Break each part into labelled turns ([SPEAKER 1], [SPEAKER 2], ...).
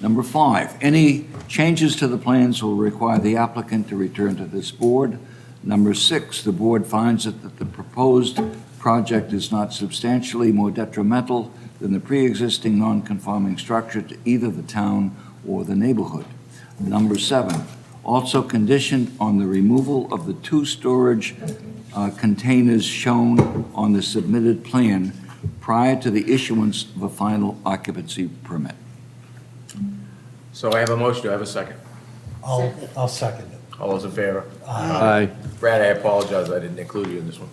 [SPEAKER 1] Number five, any changes to the plans will require the applicant to return to this board. Number six, the board finds that that the proposed project is not substantially more detrimental than the pre-existing non-conforming structure to either the town or the neighborhood. Number seven, also conditioned on the removal of the two storage uh, containers shown on the submitted plan prior to the issuance of a final occupancy permit.
[SPEAKER 2] So I have a motion, do I have a second?
[SPEAKER 3] I'll, I'll second it.
[SPEAKER 2] All those in favor?
[SPEAKER 4] Aye.
[SPEAKER 2] Brad, I apologize, I didn't include you in this one.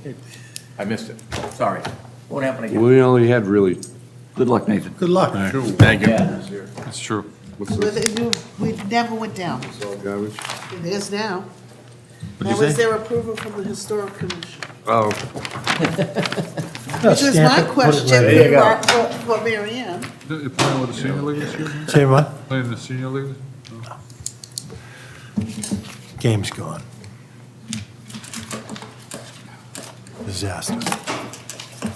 [SPEAKER 2] I missed it, sorry. Won't happen again.
[SPEAKER 4] We only had really,
[SPEAKER 1] Good luck, Nathan.
[SPEAKER 3] Good luck.
[SPEAKER 5] Thank you. That's true.
[SPEAKER 6] We never went down.
[SPEAKER 4] garbage.
[SPEAKER 6] It is now.
[SPEAKER 5] What'd you
[SPEAKER 6] That was
[SPEAKER 5] say?
[SPEAKER 6] their approval from the historic commission.
[SPEAKER 4] Oh,
[SPEAKER 6] Which is my
[SPEAKER 2] There
[SPEAKER 6] question
[SPEAKER 2] you go.
[SPEAKER 6] for, for Mary Ann.
[SPEAKER 7] You're playing with the senior league this year?
[SPEAKER 3] Say what?
[SPEAKER 7] Playing in the senior league?
[SPEAKER 3] Game's gone. Disaster.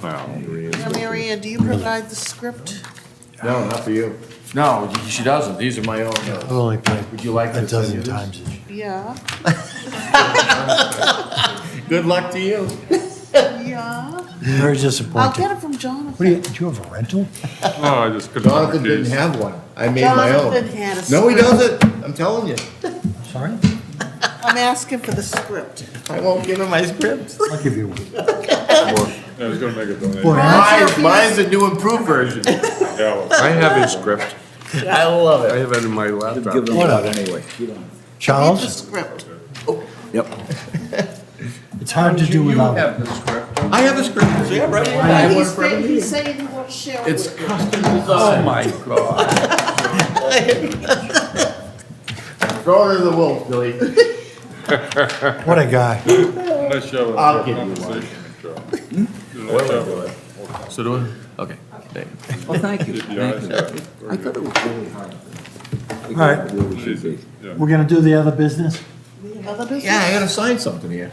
[SPEAKER 6] Now, Mary Ann, do you provide the script?
[SPEAKER 2] No, not for you. No, she doesn't, these are my own.
[SPEAKER 3] I've only played
[SPEAKER 2] Would you like to
[SPEAKER 3] a dozen
[SPEAKER 2] send you this?
[SPEAKER 3] times this year.
[SPEAKER 6] Yeah,
[SPEAKER 2] Good luck to you.
[SPEAKER 6] yeah.
[SPEAKER 3] Very
[SPEAKER 6] I'll
[SPEAKER 3] disappointed.
[SPEAKER 6] get it from Jonathan.
[SPEAKER 3] What do you, do you have a rental?
[SPEAKER 7] Oh, I just couldn't.
[SPEAKER 5] Jonathan didn't have one. I made my own.
[SPEAKER 6] Jonathan had a
[SPEAKER 5] No, he
[SPEAKER 6] script.
[SPEAKER 5] doesn't. I'm telling you.
[SPEAKER 3] Sorry?
[SPEAKER 6] I'm asking for the script.
[SPEAKER 5] I won't give him my scripts.
[SPEAKER 3] I'll give you one.
[SPEAKER 7] I was gonna make a donation.
[SPEAKER 3] Boy, I-
[SPEAKER 5] Mine's, mine's a new improved version.
[SPEAKER 4] I have his script.
[SPEAKER 5] I love
[SPEAKER 4] I
[SPEAKER 5] it.
[SPEAKER 4] have it in my laptop.
[SPEAKER 3] Whatever.
[SPEAKER 1] anyway.
[SPEAKER 6] Read the
[SPEAKER 3] Charles,
[SPEAKER 6] script.
[SPEAKER 1] Yep.
[SPEAKER 3] it's hard to do without. him.
[SPEAKER 5] I have a script. See, I'm ready. I have one
[SPEAKER 6] He's
[SPEAKER 5] for
[SPEAKER 6] saying,
[SPEAKER 5] every
[SPEAKER 6] he's saying he won't share it
[SPEAKER 5] It's
[SPEAKER 6] with
[SPEAKER 5] custom design. Oh, my God. Throw it to the wolf, Billy.
[SPEAKER 3] What a guy.
[SPEAKER 7] Nice show.
[SPEAKER 5] I'll give you one.
[SPEAKER 7] one.
[SPEAKER 2] So do I? Okay. Thank you.
[SPEAKER 1] Well, thank you.
[SPEAKER 7] Yeah,
[SPEAKER 1] Thank
[SPEAKER 7] it's
[SPEAKER 1] you.
[SPEAKER 7] good.
[SPEAKER 1] I thought it was really hard.
[SPEAKER 3] All right,
[SPEAKER 7] Easy. Yeah.
[SPEAKER 3] we're gonna do the other business?
[SPEAKER 6] other
[SPEAKER 5] Yeah,
[SPEAKER 6] business.
[SPEAKER 5] I gotta sign something here.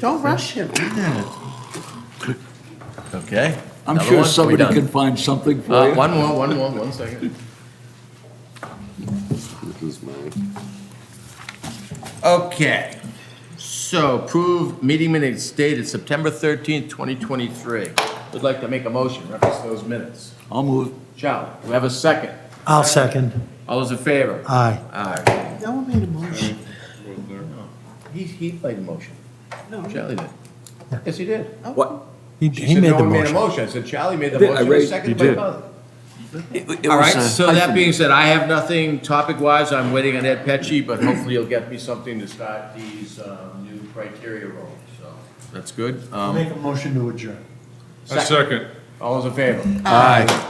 [SPEAKER 6] Don't rush him.
[SPEAKER 5] Okay.
[SPEAKER 1] I'm
[SPEAKER 5] Another
[SPEAKER 1] sure
[SPEAKER 5] one? We
[SPEAKER 1] somebody
[SPEAKER 5] done?
[SPEAKER 1] can find something for
[SPEAKER 5] Uh,
[SPEAKER 1] you.
[SPEAKER 5] one more, one more, one second. Okay, so approve meeting minutes dated September thirteenth, twenty twenty-three. Would like to make a motion, reference those minutes.
[SPEAKER 1] I'll move.
[SPEAKER 5] Charlie, do we have a second?
[SPEAKER 3] I'll second.
[SPEAKER 5] All those in favor?
[SPEAKER 3] Aye.
[SPEAKER 5] Aye.
[SPEAKER 6] No one made a motion.
[SPEAKER 5] He, he played the motion.
[SPEAKER 6] No.
[SPEAKER 5] Charlie did. Yes, he did.
[SPEAKER 1] What?
[SPEAKER 3] He,
[SPEAKER 5] She
[SPEAKER 3] he
[SPEAKER 5] said
[SPEAKER 3] made
[SPEAKER 5] no
[SPEAKER 3] the
[SPEAKER 5] one made a
[SPEAKER 3] motion.
[SPEAKER 5] motion. I said Charlie made the
[SPEAKER 1] Did I
[SPEAKER 5] motion,
[SPEAKER 1] raise-
[SPEAKER 5] seconded
[SPEAKER 4] he
[SPEAKER 5] by
[SPEAKER 4] did.
[SPEAKER 5] Buzz.
[SPEAKER 1] It- it
[SPEAKER 5] All
[SPEAKER 1] was,
[SPEAKER 5] right,
[SPEAKER 1] uh,
[SPEAKER 5] so that
[SPEAKER 1] hyphen.
[SPEAKER 5] being said, I have nothing topic-wise, I'm waiting on Ed Petchy, but hopefully he'll get me something to start these um, new criteria rolls, so. That's good. Um,
[SPEAKER 3] Make a motion to adjourn.
[SPEAKER 7] A second.
[SPEAKER 5] All those in favor?
[SPEAKER 4] Aye.